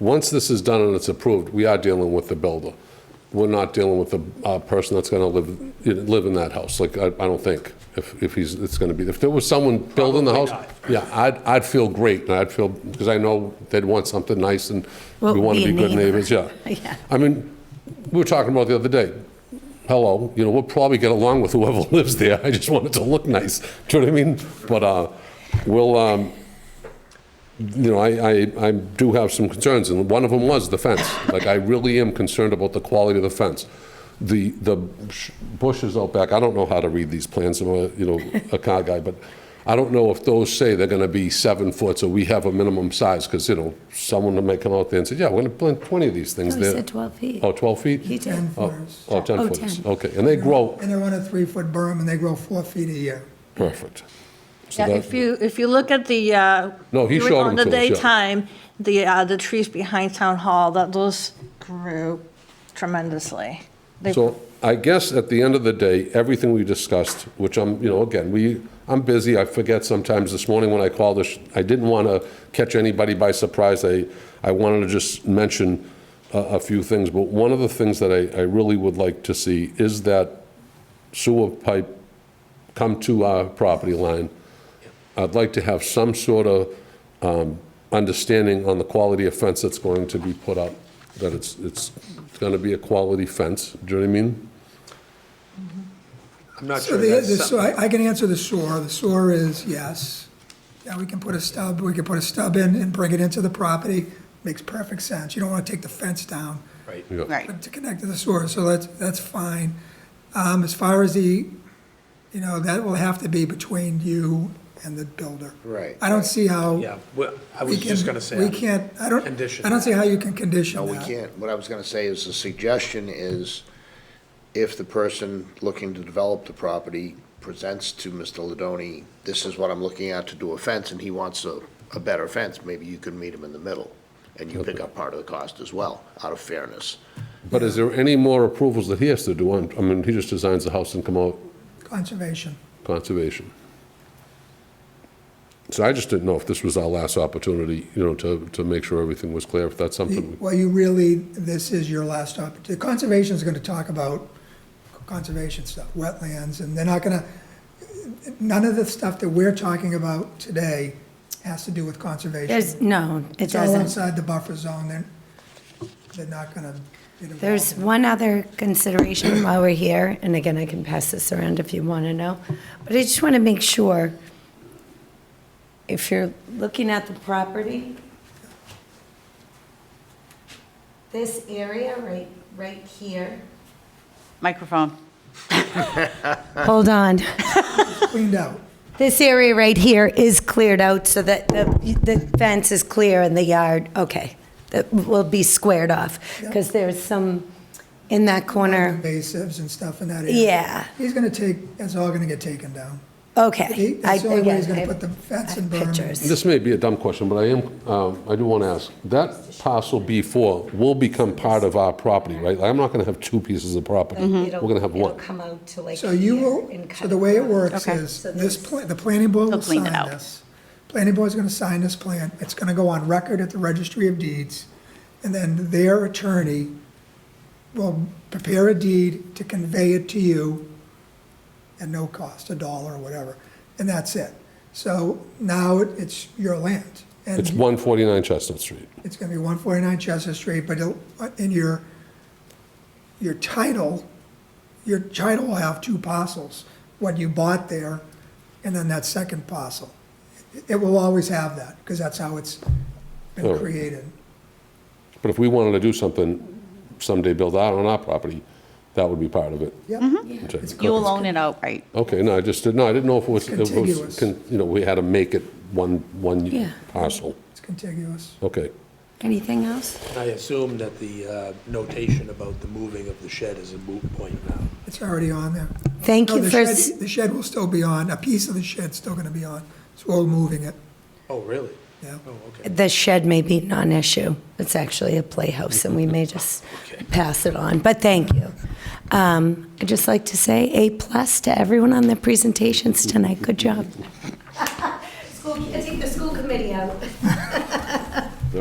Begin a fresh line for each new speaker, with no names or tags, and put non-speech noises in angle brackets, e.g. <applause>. Once this is done and it's approved, we are dealing with the builder. We're not dealing with the uh, person that's going to live, you know, live in that house, like, I I don't think, if, if he's, it's going to be, if there was someone building the house,
Probably
yeah, I'd, I'd feel great, and I'd feel, because I know they'd want something nice, and
Well,
we want to
be a
be good
neighbor.
neighbors, yeah.
<laughs> Yeah.
I mean, we were talking about the other day, hello, you know, we'll probably get along with whoever <laughs> lives there, I just want it to look nice, do you know what I mean? But, uh, we'll, um, you know, I, I, I do have some concerns, and one of them was the fence. Like, I really am concerned about the quality of the fence. The, the sh- bushes out back, I don't know how to read these plans, I'm a, you know, a car guy, but I don't know if those say they're gonna be seven foot, so we have a minimum size, because, you know, someone may come out there and say, yeah, we're gonna plant 20 of these things
No, he
there.
said 12 feet.
Oh, 12 feet?
He did.
ten
Oh,
footers.
oh, 10
Oh,
foot,
10.
okay, and they grow,
And they're on a three-foot berm, and they grow four feet a year.
perfect. So
Yeah,
that-
if you, if you look at the, uh.
No, he showed them
On the
to us, yeah.
daytime, the, uh, the trees behind town hall, that those grew tremendously. They-
So I guess at the end of the day, everything we discussed, which I'm, you know, again, we, I'm busy, I forget sometimes. This morning when I called, this- I didn't want to catch anybody by surprise. I, I wanted to just mention a, a few things, but one of the things that I, I really would like to see is that sewer pipe come to our property line. I'd like to have some sort of um, understanding on the quality of fence that's going to be put up, that it's, it's going to be a quality fence, do you know what I mean?
I'm not
So
sure
the, the,
that's
so
something.
I, I can answer the SOAR. The SOAR is yes. Yeah, we can put a stub, we can put a stub in and bring it into the property. Makes perfect sense. You don't want to take the fence down
Right.
Yeah.
Right.
to connect to the SOAR, so that's, that's fine. Um, as far as the, you know, that will have to be between you and the builder.
Right.
I don't see how.
Yeah, well, I
uh, we
was just
can-
gonna say.
We can't, I don't,
Condition
I don't see
that.
how you can condition
No, we
that.
can't. What I was gonna say is the suggestion is if the person looking to develop the property presents to Mr. Ladoni, this is what I'm looking at to do a fence, and he wants a, a better fence, maybe you can meet him in the middle, and you pick up part of the cost as well, out of fairness.
But is there any more approvals that he has to do on, I mean, he just designs the house and come out
Conservation.
conservation? So I just didn't know if this was our last opportunity, you know, to, to make sure everything was clear, if that's
The-
something. we-
Well, you really, this is your last opportunity. Conservation's gonna talk about conservation stuff, wetlands, and they're not gonna, none of the stuff that we're talking about today has to do with conservation.
There's, no, it
It's all
doesn't.
outside the buffer zone, they're, they're not gonna get involved.
There's one other consideration <clears throat> while we're here, and again, I can pass this around if you want to know, but I just want to make sure, if you're looking at the property, this area right, right here.
Microphone.
Hold on.
Cleaned out.
This area right here is cleared out so that the, the fence is clear and the yard, okay, that will be squared off. Because there's some in that corner,
Invasives and stuff in that area.
yeah,
He's gonna take, it's all gonna get taken down. He-
okay.
That's the only way he's
I-
gonna
again,
put the
I-
fence
I
and
have
berm.
Pictures.
This may be a dumb question, but I am, um, I do want to ask, that parcel B4 will become part of our property, right? I'm not going to have two pieces of property. We're
It'll-
going to have
it'll
one.
come out to like
So you
here
will,
and
so
cut
the way it
across.
works
Okay.
is,
So
this,
this-
pla- the planning board will
They'll clean
sign
it out.
this. Planning board's gonna sign this plan, it's gonna go on record at the registry of deeds, and then their attorney will prepare a deed to convey it to you at no cost, a dollar or whatever, and that's it. So now it- it's your land. and
It's 149 Chestnut Street.
It's gonna be one forty-nine Chestnut Street, but it'll- uh, in your, your title, your title will have two parcels, what you bought there, and then that second parcel. It will always have that, because that's how it's
Oh.
been created.
But if we wanted to do something someday, build out on our property, that would be part of it.
Yep.
Mm-hmm.
Okay.
You will own it outright.
Okay, no, I just, didn't. no, I didn't know if it was, it was
Contiguous.
con- you know, we had to make it one,
Yeah.
one parcel.
It's contiguous.
Okay.
Anything else?
I assume that the uh, notation about the moving of the shed is a moot point now.
It's already on there.
Thank
No,
you
the
for,
shed-
s-
The shed will still be on, a piece of the shed's still gonna be on, so we're moving it,
Oh, really?
yeah.
Oh, okay.
the shed may be non-issue. It's actually a playhouse, and we may just pass it on, but thank you. Um, I'd just like to say A-plus to everyone on their presentations tonight. Good job.